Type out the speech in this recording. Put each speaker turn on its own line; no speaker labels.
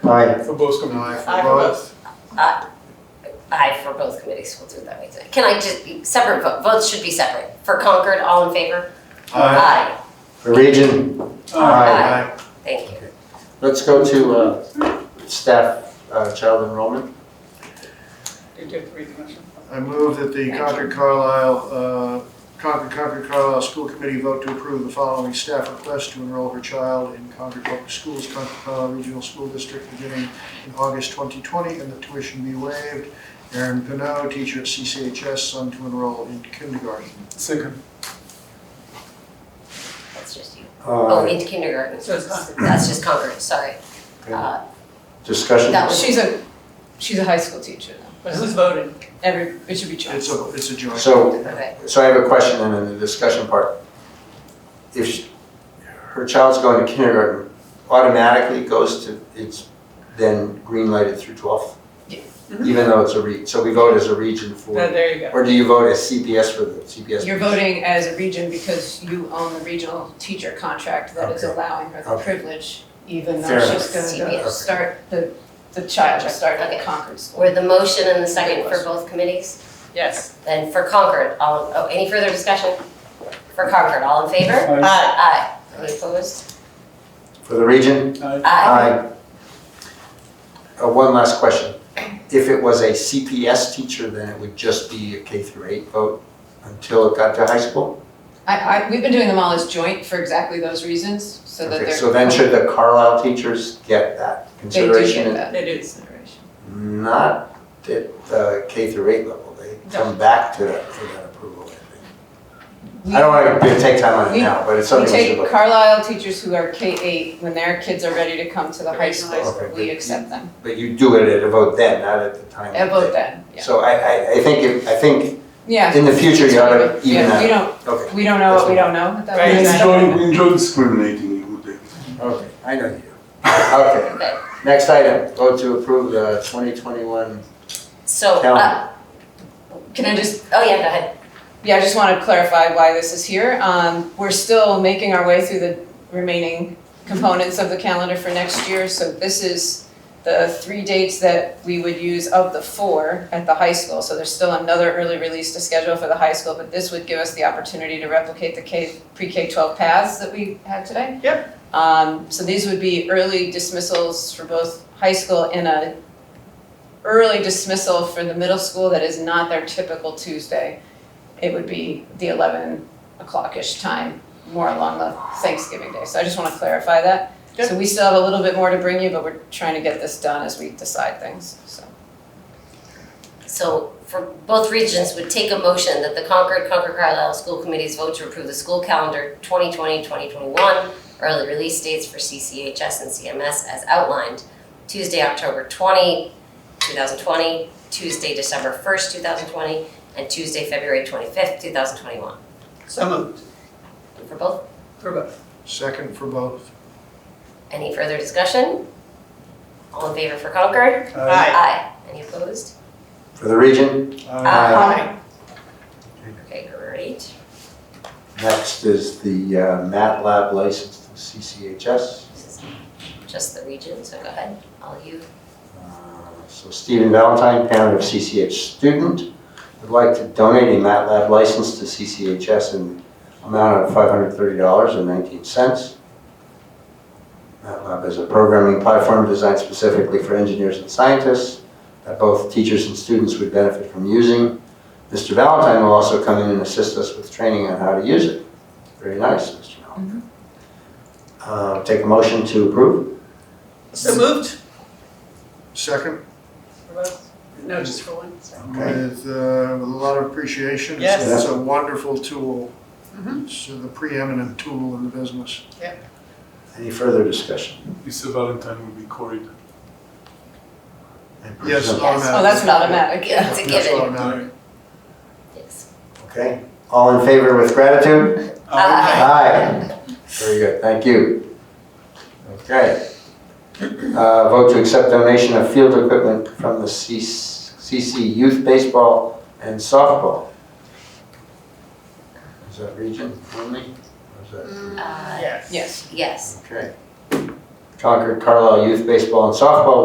Aye.
Verboscom, aye.
Aye.
Votes.
Aye for both committees, we'll do it that way. too. Can I just, separate vote, votes should be separate. For Concord, all in favor? Aye.
For region, aye.
Aye. Thank you.
Let's go to uh, staff uh, child enrollment.
You did read the motion.
I move that the Concord Carlisle, uh, Concord Concord Carlisle School Committee vote to approve the following staff request to enroll her child in Concord Public Schools, Concord Carlisle Regional School District beginning in August 2020, and that tuition be waived. Aaron Pino, teacher at CCHS, son to enroll in kindergarten.
Second.
That's just you. Oh,
Uh,
into kindergarten.
So it's Concord.
That's just Concord, sorry.
Okay.
Uh,
Discussion?
That was-
She's a, she's a high school teacher though.
But who's voting?
Every, it should be
It's
Johnson.
a, it's a joint.
So,
Okay.
so I have a question and then the discussion part. If she- her child's going to kindergarten, automatically goes to, it's then green lighted through 12th?
Yeah.
Even though it's a re, so we vote as a region
No,
for,
there you go.
or do you vote as CPS for the CPS?
You're voting as a region because you own the regional teacher contract that is
Okay.
allowing her the
Okay.
privilege, even
Fair
though she's
enough.
gonna
CPS.
go start, the, the child will start at
Okay.
the Concord school.
Were the motion and the second for both committees?
Yes.
And for Concord, all, oh, any further discussion? For Concord, all in favor?
Aye.
Aye. Any opposed?
For the region?
Aye.
Aye.
Uh, One last question. If it was a CPS teacher, then it would just be a K through eight vote until it got to high school?
I, I, we've been doing them all as joint for exactly those reasons, so that
Okay,
they're.
so then should the Carlisle teachers get that
They do
consideration?
get that.
They do consideration.
Not at the K through eight level, they come back to that, for that approval, I think. I don't want to take time on it
We-
now, but it's
We
something we should
take
look.
Carlisle teachers who are K eight, when their kids are ready to come to the high
Regional high
school,
school.
we accept them.
But you do it at a vote then, not at the time.
I vote then, yeah.
So I, I, I think, if- I think
Yeah.
in the future, you ought to even
Yeah, we
that.
don't,
Okay.
we don't know what we don't know.
Right.
We
Aye.
enjoy, we enjoy discriminating you, David.
Okay, I know you. do. Okay,
Okay.
next item, vote to approve the 2021.
So, uh,
Calendar.
Can I just,
oh yeah, go ahead.
yeah, I just want to clarify why this is here. Um, we're still making our way through the remaining components of the calendar for next year. So this is the three dates that we would use of the four at the high school. So there's still another early release to schedule for the high school, but this would give us the opportunity to replicate the K, pre-K twelve paths that we had today. Yep. Um, so these would be early dismissals for both high school and a early dismissal for the middle school that is not their typical Tuesday. It would be the eleven o'clock-ish time, more along the Thanksgiving day. So I just wanna clarify that. So we still have a little bit more to bring you, but we're trying to get this done as we decide things, so.
So for both regions would take a motion that the Concord, Concord Carlisle School Committees vote to approve the school calendar 2020, 2021, early release dates for CCHS and CMS as outlined. Tuesday, October 20, 2020, Tuesday, December 1st, 2020, and Tuesday, February 25th, 2021.
So moved.
For both,
For both.
Second for both.
any further discussion? All in favor for Concord?
Aye.
Aye. Any opposed?
For the region, Aye.
Okay, great.
next is the uh, MATLAB license to CCHS.
This is Just the region, so go ahead, all you.
Uh, So Stephen Valentine, parent of CCH student, would like to donate a MATLAB license to CCHS in the amount of $530.19. MATLAB is a programming platform designed specifically for engineers and scientists that both teachers and students would benefit from using. Mr. Valentine will also come in and assist us with training on how to use it. Very nice, Mr. Valentine. Uh, Take a motion to approve?
So moved.
Second,
For both? No, just for one. sorry.
with, uh, with a lot of appreciation. It's-
Yes.
It's a wonderful tool.
Mhm.
It's the preeminent tool in the business.
Any further discussion?
Mr. Valentine will be corridor.
Yes,
Present.
Yes.
automatic.
Oh, that's an automatic,
Yeah,
yeah.
it's a
That's
given.
automatic.
Yes.
Okay, all in favor with gratitude? Uh,
Aye.
Aye. Very good, thank you. Okay. Uh, Vote to accept donation of field equipment from the C- CC Youth Baseball and Softball. Is that region only? Or is that-
Uh,
Yes.
Yes.
Yes.
Okay. Concord Carlisle Youth Baseball and Softball